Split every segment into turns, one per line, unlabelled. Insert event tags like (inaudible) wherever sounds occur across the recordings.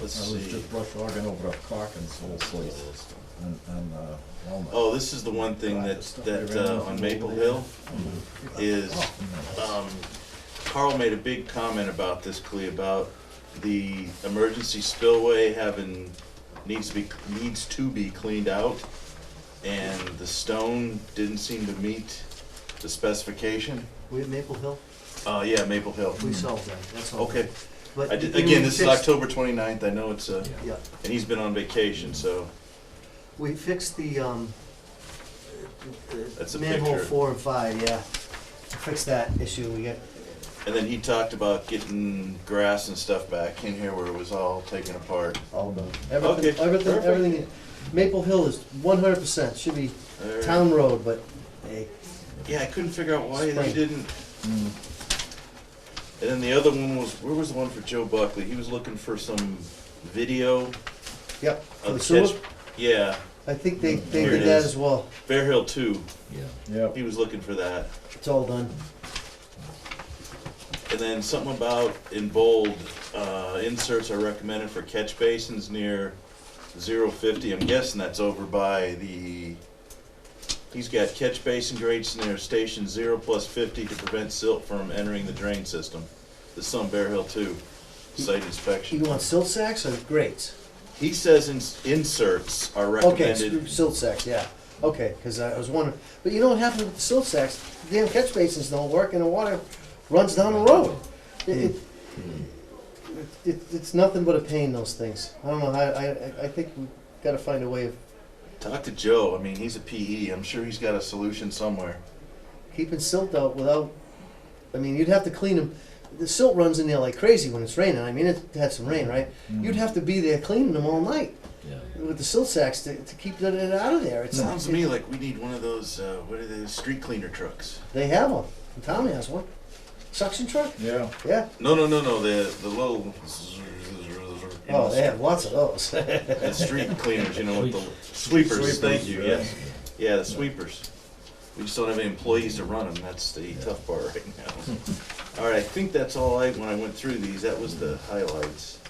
Let's
I was
see.
just brush hogging over a Hawkins whole place and, and uh, Walnut.
Oh, this is the one thing that, that, uh, on Maple Hill
Hmm.
is,
Oh,
um, Carl made a big comment about this, Clea, about the emergency spillway having, needs to be, needs to be cleaned out. And the stone didn't seem to meet the specification.
We at Maple Hill,
Uh, yeah, Maple Hill.
we solved that, that's all.
Okay.
But
I did,
you-
again,
we
this is
fixed-
October twenty-ninth. I know it's, uh,
Yeah,
and he's been on vacation, so,
we fixed the, um, uh,
That's a
manhole
picture.
four and five, yeah. Fixed that issue, we got,
and then he talked about getting grass and stuff back in here where it was all taken apart.
all done.
Okay,
Everything, everything,
perfect.
everything, Maple Hill is one hundred percent, should be
Alright.
town road, but, hey,
Yeah, I couldn't figure out why they
Spring.
didn't. Mm-hmm.
Mm.
And then the other one was, where was the one for Joe Buckley? He was looking for some video
yep, for
of
the
the
sewer,
catch. Yeah,
I think they, they
Here it
did that
is.
as well,
Bear Hill Two.
Yep.
He was looking for that.
it's all done.
And then something about in bold, uh, inserts are recommended for catch basins near zero fifty. I'm guessing that's over by the, he's got catch basin grates near station zero plus fifty to prevent silt from entering the drain system. This is on Bear Hill Two, site
You
inspection.
want silt sacks or grates?
He says ins- inserts are
Okay,
recommended.
screw silt sacks, yeah, okay, cause I was wondering, but you know what happened with the silt sacks? The Damn catch basins don't work and the water runs down the road. It, it, it, it's nothing but a pain, those things. I don't know, I, I, I- I think we gotta find a way of
Talk to Joe, I mean, he's a PE, I'm sure he's got a solution somewhere.
keeping silt out without, I mean, you'd have to clean them. The silt runs in there like crazy when it's raining, I mean, it had some rain, right? You'd have to be there cleaning them all night with the silt sacks to, to keep that it out of there. It's,
Sounds to me like we need one of those, uh, what are those, street cleaner trucks?
They have one, Tommy has one. Suction truck,
Yeah,
yeah.
No, no, no, no. The the little.
Oh, (laughs) they have lots of those.
The street cleaners, you know, with the sweepers. thank you. Yes. Yeah, the sweepers. We just don't have any employees to run them. That's the tough part right now. (laughs) all right, I think that's all I when I went through these. That was the highlights.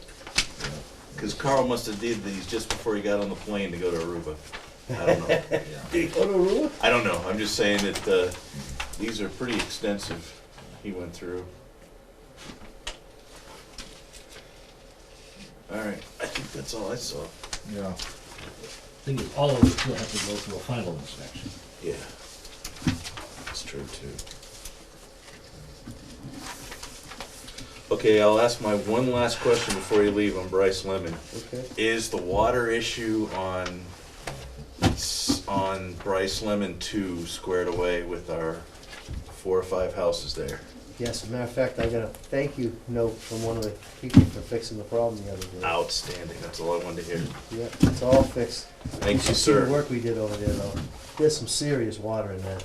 Because Carl must have did these just before he got on the plane to go to Aruba. I don't (laughs) know.
Rotorua?
I don't know. I'm just saying that uh, these are pretty extensive. uh, He went through. All right, I think that's all I saw.
yeah.
Thing is, all of us will have to go through a final inspection.
Yeah, that's true too. Okay, I'll ask my one last question before you leave on Bryce Lemon.
Okay.
Is the water issue on s- on Bryce Lemon two squared away with our four or five houses there?
Yes, as a matter of fact, I got a thank you note from one of the people for fixing the problem the other day.
Outstanding. That's all I wanted to hear.
Yeah, it's all fixed.
Thank you,
should see The
sir.
work we did over there though, there's some serious water in that,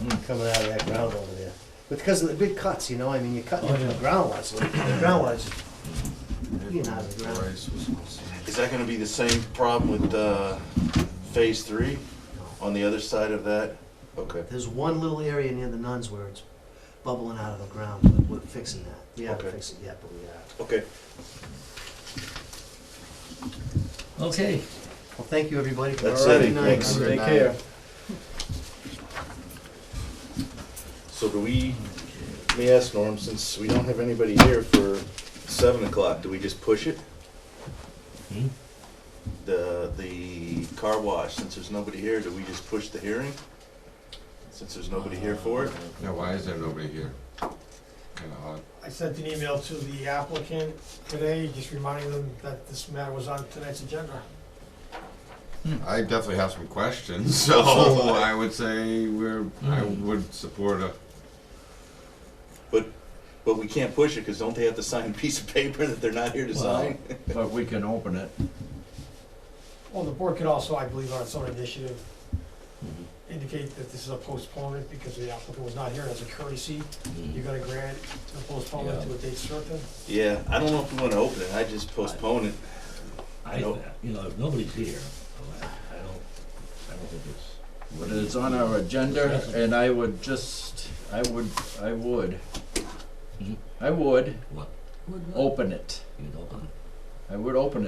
Hmm.
coming out of that ground over there. But Because of the big cuts, you know, I mean, you're cutting
Oh,
into the
yeah.
groundwater, so the groundwater's just being out of the ground.
Is that gonna be the same problem with uh, phase three on the other side of that? Okay.
There's one little area near the nuns where it's bubbling out of the ground, but we're fixing that. We haven't
Okay.
fixed it yet, but we are.
Okay.
Okay,
Well, thank you, everybody.
That's
All right,
it.
good night.
Thanks.
Take care.
So do we, let me ask Norm, since we don't have anybody here for seven o'clock, do we just push it?
Hmm?
The, the car wash, since there's nobody here, do we just push the hearing? Since there's nobody here for it?
Now, why is there nobody here? Kinda odd.
I sent an email to the applicant today, just reminding them that this matter was on tonight's agenda.
I definitely have some questions, so I would say we're, I would support a,
But, but we can't push it, cause don't they have to sign a piece of paper that they're not here to sign?
But we can open it.
Well, the board could also, I believe, on its own initiative, indicate that this is a postponement because the applicant was not here as a courtesy.
Hmm.
You're gonna grant a postponement to a date certain?
Yeah, I don't know if we wanna open it, I just postpone it.
I, you know, if nobody's here, I I don't, I don't think it's,
But it's on our agenda and I would just, I would, I would,
Mhm.
I would
what?
open it.
You know,
I would open it.